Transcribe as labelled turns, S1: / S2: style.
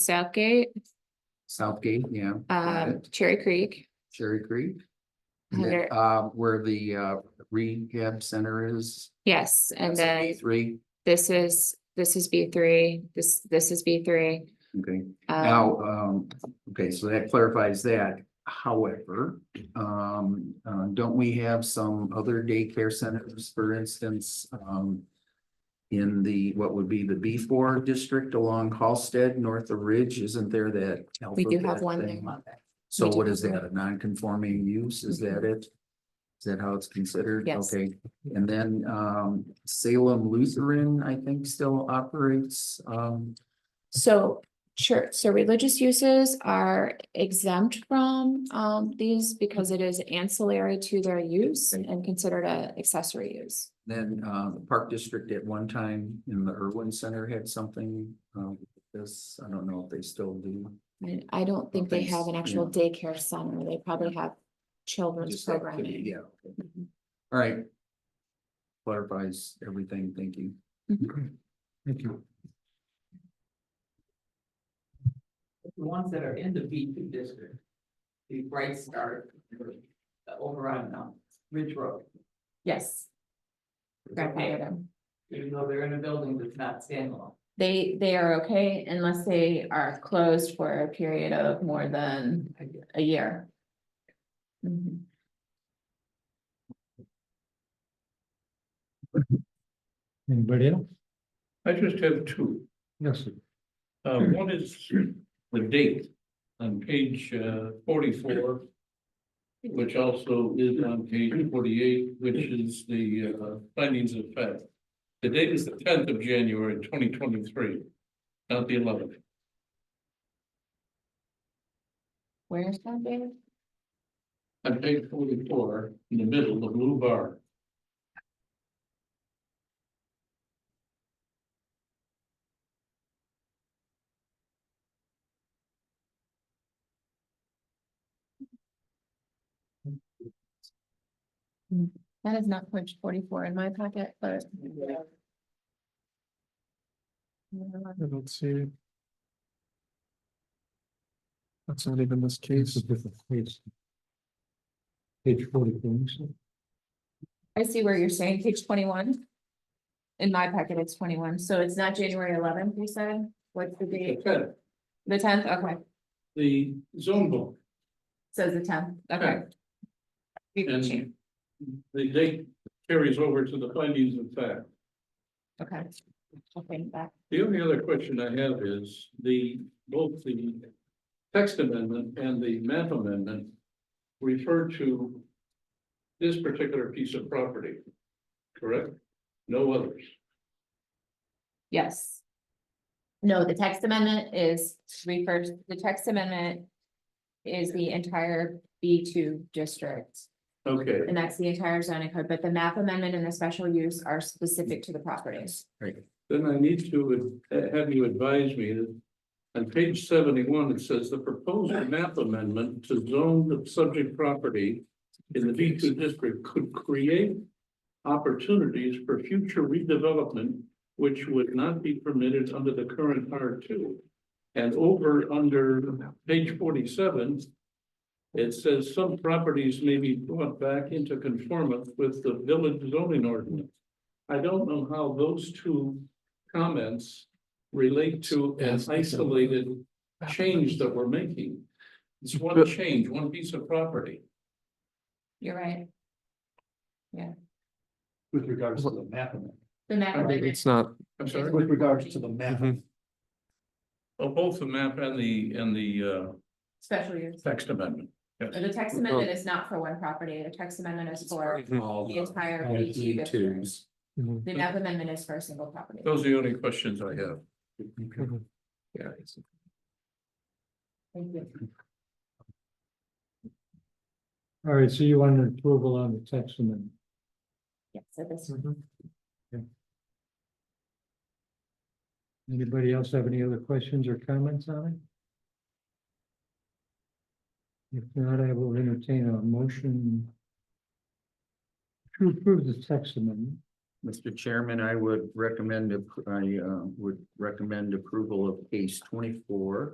S1: Southgate,
S2: Southgate, yeah. got
S1: um,
S2: it.
S1: Cherry Creek.
S2: Cherry Creek. and then,
S1: under-
S2: Uh, where the uh rehab center is.
S1: Yes, and
S2: that's a
S1: then
S2: Three,
S1: this is, this is B three, this, this is B three.
S2: okay.
S1: Um,
S2: Now, um, okay, so that clarifies that. However, um, uh, don't we have some other daycare centers, for instance, um. In the, what would be the B four district along Halsted, north of Ridge, isn't there that?
S1: we do have
S2: alphabet
S1: one
S2: thing?
S1: there.
S2: So
S1: do
S2: what
S1: have Mm-hmm.
S2: is that, a non-conforming use, is that it? Is that how it's considered?
S1: Yes.
S2: Okay, and then um Salem Lutheran, I think, still operates, um,
S1: So church, so religious uses are exempt from, um, these because it is ancillary to their use and considered a accessory use.
S2: then uh the Park District at one time in the Irwin Center had something. Um, this, I don't know if they still do.
S1: And I don't think they have an actual daycare center. They probably have children's
S2: Just that could be-
S1: programming.
S2: Yeah, okay. all right. Clarifies everything, thank you.
S3: Thank you.
S4: the ones that are in the B two district. The Bright Star, uh, over on, um, Ridge Road.
S1: Yes, grandfather them.
S4: Even though they're in a building that's not standalone.
S1: They, they are okay unless they are closed for a period of more than
S4: I guess.
S1: a year. Mhm.
S3: Anybody else?
S5: I just have two.
S3: Yes. sir.
S5: Uh, one is the date on page uh, forty-four, which also is on page forty-eight, which is the uh, findings of fact. The date is the tenth of January, twenty twenty-three, not the eleventh.
S1: Where's that, David?
S5: On page forty-four, in the middle, the blue bar.
S1: That is not page forty-four in my packet, but.
S6: I don't see. it. That's not even this
S3: It's
S6: case.
S3: a different page. Page forty-four, you said?
S1: I see where you're saying page twenty-one. In my packet, it's twenty-one, so it's not January eleventh, you said? What's the
S5: The
S1: date?
S5: 10th,
S1: The tenth, okay,
S5: The zone book.
S1: says the tenth, okay. We can change,
S5: And the date carries over to the findings of fact.
S1: okay. I'll bring it back.
S5: The only other question I have is the, both the text amendment and the map amendment refer to this particular piece of property, correct? No others.
S1: Yes. No, the text amendment is refers, the text amendment is the entire B two district.
S5: Okay,
S1: And that's the entire zoning code, but the map amendment and the special use are specific to the properties.
S5: then I need to ad- have you advise me that on page seventy-one, it says the proposed map amendment to zone the subject property in the B two district could create opportunities for future redevelopment which would not be permitted under the current R two. And over under page forty-seven, it says some properties may be brought back into conformance with the village zoning ordinance. I don't know how those two comments relate to an
S3: Yes.
S5: isolated change that we're making. It's one
S6: But-
S5: change, one piece of property.
S1: You're right.
S3: With regards
S6: to
S3: the map.
S1: The map amendment,
S6: It's not,
S5: I'm sorry,
S1: With
S3: regards
S1: to the
S3: map.
S2: Mm-hmm.
S5: Oh, both the map and the, and the,
S1: special use.
S5: uh, text amendment.
S1: The text amendment is not for one property. The text amendment is for
S2: All
S1: the
S6: Mm-hmm.
S1: entire
S2: all
S1: B two
S2: E
S1: district.
S2: twos.
S6: mhm,
S1: The map amendment is for a single property.
S5: Those are the only questions I have.
S6: mhm.
S1: Thank you.
S3: All right, so you want an approval on the text amendment.
S1: Yeah, so this,
S6: Mm-hmm.
S3: Okay. Anybody else have any other questions or comments on it? If not, I will entertain a motion to approve the text amendment.
S2: Mr. Chairman, I would recommend, appro- I uh, would recommend approval of case twenty-four